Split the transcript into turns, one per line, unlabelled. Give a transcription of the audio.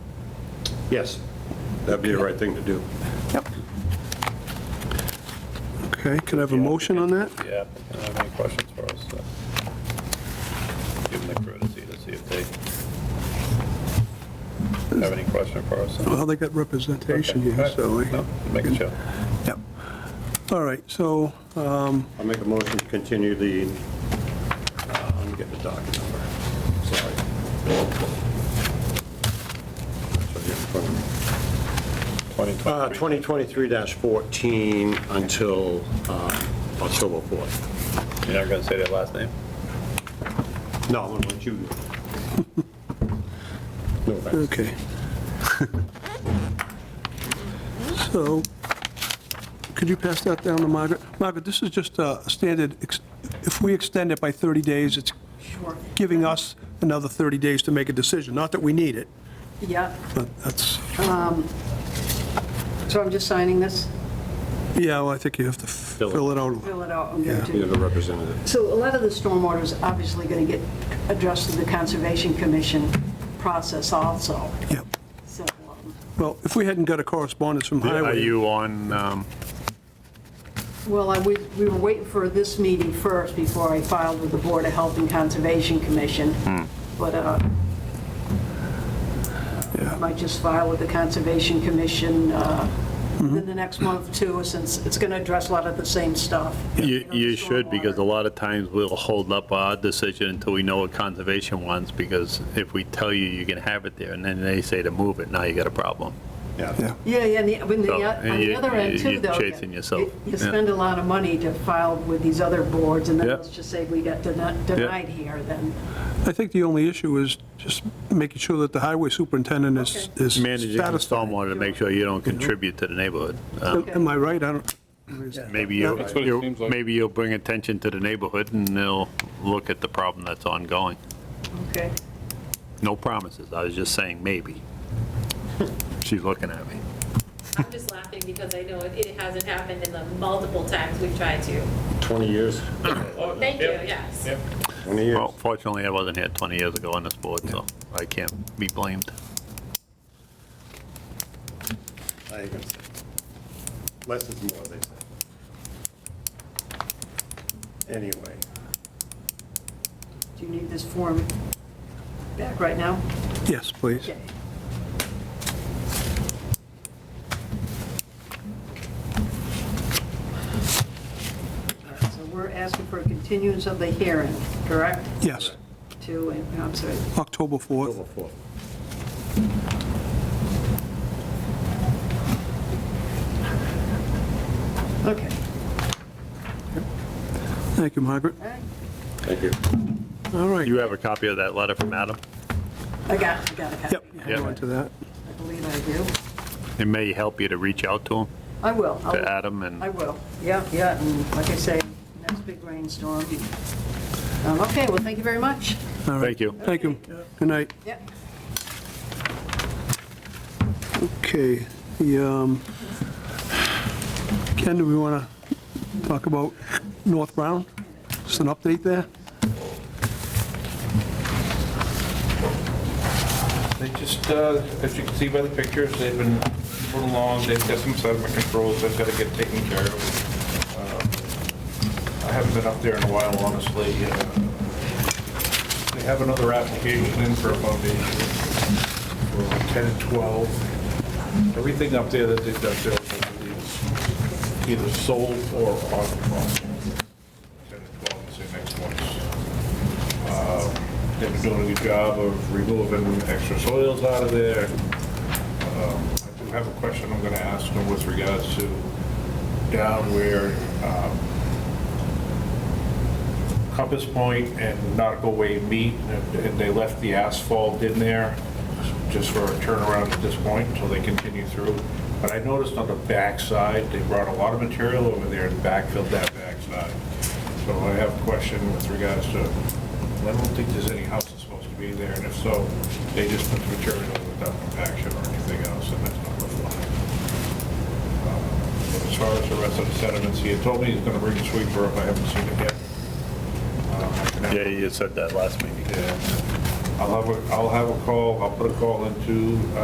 Yes, that'd be the right thing to do.
Yep.
Okay, could I have a motion on that?
Yeah, I don't have any questions for us. so. Give them the courtesy to see if they have any question for us. so.
Well, they got representation here,
Okay, all
so.
right. No, Make a show.
Yep. All right, so, um,
I'll make a motion to continue the, uh, let me get the docket number, sorry. It's right here in front of me. Uh,
2023.
2023-14 until uh, October 4th.
You're not going to say their last name?
No, I'm going to let you do it. No offense.
okay. So, could you pass that down to Margaret? Margaret, this is just a standard, ex- if we extend it by 30 days, it's giving us another 30 days to make a decision. Not that we need it,
Yeah,
but that's,
so I'm just signing this,
yeah, well, I think you have to
it.
fill it out.
fill it out. I'm gonna
Yeah.
do-
You're the representative.
So a lot of the stormwater is obviously going to get addressed through the Conservation Commission process also,
Yep.
so. um,
Well, if we hadn't got a correspondence from Highway.
Are you on, um,
Well, I, we we were waiting for this meeting first before I filed with the Board of Health and Conservation Commission,
Hmm.
but uh, I might just file with the Conservation Commission uh, in the next month too, since it's going to address a lot of the same stuff.
You,
know,
you should, because a
stormwater.
lot of times we'll hold up our decision until we know what conservation wants, because if we tell you you can have it there, and then they say to move it, now you got a problem.
Yeah.
Yeah, yeah, and the- when the, uh,
So,
on the
you-
other end too,
you're
though.
chasing
you-
yourself.
You
Yeah.
spend a lot of money to file with these other boards, and then
Yeah.
let's just say we got deni- denied here, then.
I think the only issue is just making sure that the highway superintendent is is
Managing the
satisfied.
stormwater to make sure you don't contribute to the neighborhood. Um,
Am am I right? I don't,
Maybe you'll,
That's what it
you'll-
seems like.
maybe you'll bring attention to the neighborhood and they'll look at the problem that's ongoing.
Okay.
No promises, I was just saying maybe. She's looking at me.
I'm just laughing because I know it it hasn't happened in the multiple times we've tried to.
20 years,
Thank you, yes.
20 years.
Well, fortunately, I wasn't here 20 years ago on this board, so I can't be blamed.
I ain't gonna say. Less is more, they say. Anyway,
Do you need this form back right now?
yes, please.
Okay. All right, So we're asking for a continuance of the hearing, correct?
Yes,
To, I'm sorry,
October 4th.
October 4th.
okay.
Thank you, Margaret.
All right.
Thank you.
All right.
You have a copy of that letter from Adam?
I got, I got a copy.
Yep, hang on to that.
I believe I do.
It may help you to reach out to him,
I will. I'll-
to Adam, and
I will, yeah, yeah, and like I say, next big rainstorm. Um, Okay, well, thank you very much.
All right.
thank you.
Thank you. Good night.
Yep.
Okay, the, um, Ken, do we want to talk about North Brown? Just an update there?
They just, uh, as you can see by the pictures, they've been moving along, they've got some sediment controls they've got to get taken care of. Um, I haven't been up there in a while, honestly. Uh, They have another application in for a foundation for 10 and 12. Everything up there that they've got there I believe, is either sold or on the market. 10 and 12 is the next ones. Uh, They've been doing a good job of removing extra soils out of there. Um, I do have a question I'm going to ask them with regards to down where uh, um, Compass Point and Nautical Way meet, and they left the asphalt in there just for a turnaround at this point until they continue through. But I noticed on the backside, they brought a lot of material over there and backfilled that backside. So I have a question with regards to, I don't think there's any houses supposed to be there, and if so, they just put the material without compaction or anything else, and that's not reflected. Uh, As far as the rest of the sediments, he had told me he's gonna bring a sweeper up, I haven't seen it yet. Uh, I can have-
Yeah, you said that last meeting.
Yeah. I'll have a, I'll have a call, I'll put a call into, uh,